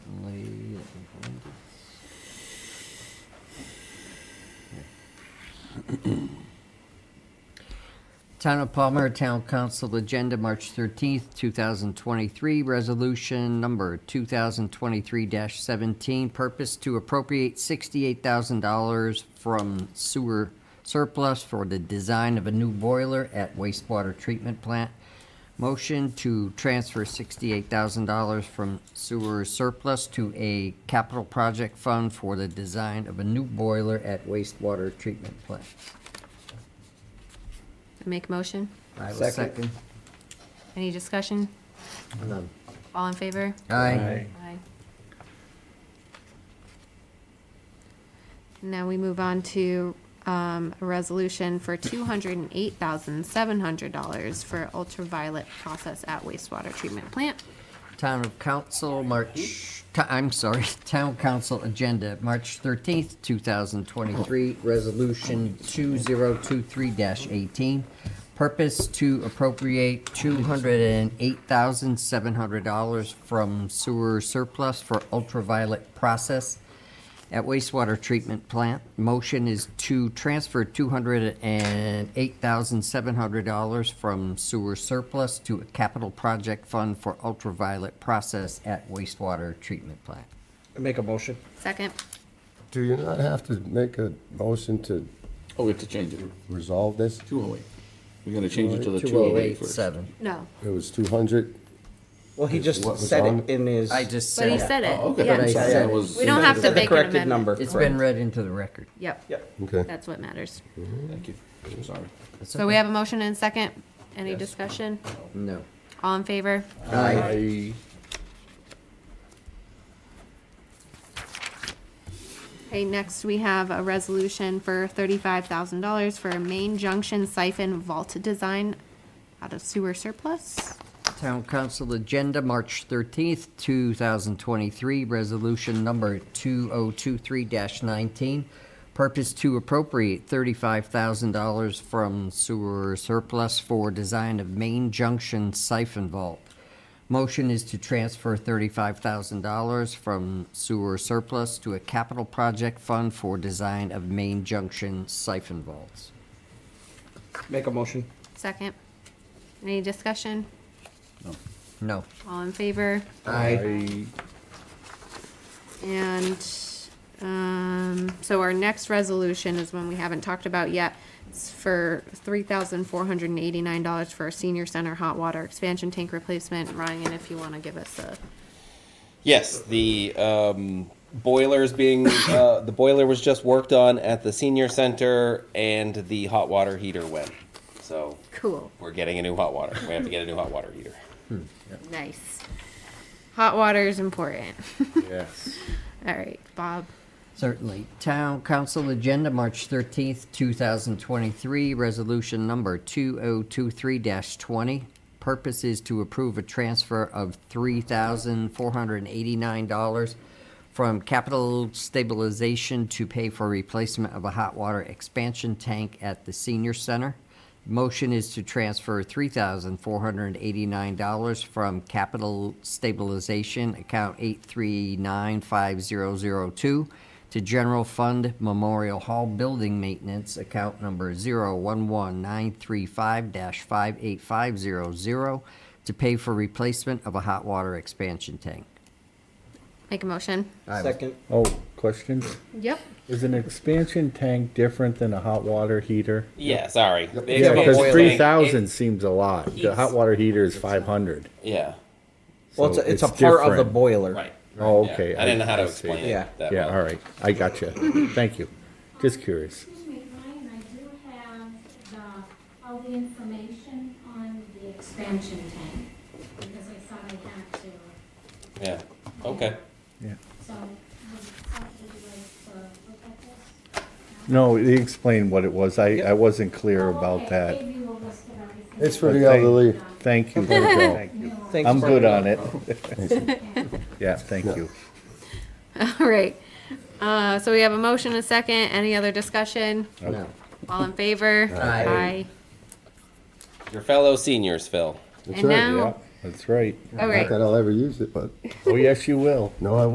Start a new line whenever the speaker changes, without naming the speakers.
Town of Palmer Town Council Agenda, March 13th, 2023, Resolution Number 2023-17, purpose to appropriate $68,000 from sewer surplus for the design of a new boiler at wastewater treatment plant. Motion to transfer $68,000 from sewer surplus to a capital project fund for the design of a new boiler at wastewater treatment plant.
I Make a motion.
I will
Second.
second.
Any discussion?
None.
All in favor?
Aye.
Aye. Now we move on to um, a resolution for $208,700 for ultraviolet process at wastewater treatment plant.
Town of Council, March, t- I'm sorry, Town Council Agenda, March thirteenth, two thousand twenty-three, Resolution two zero two three eighteen. Purpose to appropriate two hundred and eight thousand seven hundred dollars from sewer surplus for ultraviolet process at wastewater treatment plant. Motion is to transfer two hundred and eight thousand seven hundred dollars from sewer surplus to a capital project fund for ultraviolet process at wastewater treatment plant.
Make a motion.
Second.
Do you not have to make a motion to
Oh, we have to change it.
resolve this?
Two oh eight. We're gonna change it to the
Two
two oh eight first.
seven.
No,
It was two hundred?
Well, he just
What was
said
on?
it in his.
I just
but he
said it.
said it.
Oh, okay.
Yeah.
But I
Sorry,
said
I
it.
was-
We don't have to
said the
make an
corrected
amendment.
number.
It's
correct.
been read into the record.
Yep,
Yep.
Okay.
that's what matters.
Thank you. I'm sorry.
That's
So we
okay.
have a motion and a second. Any discussion?
No.
All in favor?
Aye.
Okay, next we have a resolution for thirty-five thousand dollars for a main junction siphon vault design out of sewer surplus.
Town Council Agenda, March 13th, 2023, Resolution Number 2023-19, purpose to appropriate $35,000 from sewer surplus for design of main junction siphon vault. Motion is to transfer $35,000 from sewer surplus to a capital project fund for design of main junction siphon vaults.
Make a motion.
Second. Any discussion?
No.
All in favor?
Aye.
And, um, so our next resolution is one we haven't talked about yet. It's for three thousand four hundred and eighty-nine dollars for a senior center hot water expansion tank replacement. Ryan, if you wanna give us a,
Yes, the um, boiler is being uh, the boiler was just worked on at the senior center, and the hot water heater went. So
cool.
we're getting a new hot water. We have to get a new hot water heater.
Nice. Hot water is important.
Yes.
All right, Bob.
Certainly. Town Council Agenda, March 13th, 2023, Resolution Number 2023-20. Purpose is to approve a transfer of $3,489 from capital stabilization to pay for replacement of a hot water expansion tank at the senior center. Motion is to transfer $3,489 from capital stabilization account 8395002 to general fund Memorial Hall building maintenance account number 011935-58500 to pay for replacement of a hot water expansion tank.
Make a motion.
Second.
Oh, question?
Yep.
Is an expansion tank different than a hot water heater?
Yeah, sorry. The
Yeah, because
expansion
three
tank,
thousand
it-
seems a lot. The hot
Heats.
water heater is five hundred.
Yeah,
Well, it's
So
a, it's a
it's
part of the
different.
boiler.
right.
Oh,
Yeah.
okay.
I didn't know how to
I see.
explain it.
Yeah.
that
Yeah,
well.
all right. I got you. Thank you. Just curious.
Excuse me, Ryan, I do have the, all the information on the expansion tank, because I thought I had to.
Yeah. Okay.
Yeah.
So, would somebody like to look at this?
No, he explained what it was. I, I wasn't clear
Oh,
about
okay, I
that.
gave you a list of everything.
It's for
But
the
thank-
elderly.
Thank you, Virgil.
Thanks
I'm
for-
good on it. Yeah, thank you.
All right. Uh, so we have a motion, a second. Any other discussion?
No.
All in favor?
Aye.
Your fellow seniors, Phil.
That's
And
right.
now-
Yeah, that's right.
All
Not
right.
that I'll ever use it, but,
Oh, yes, you will.
no, I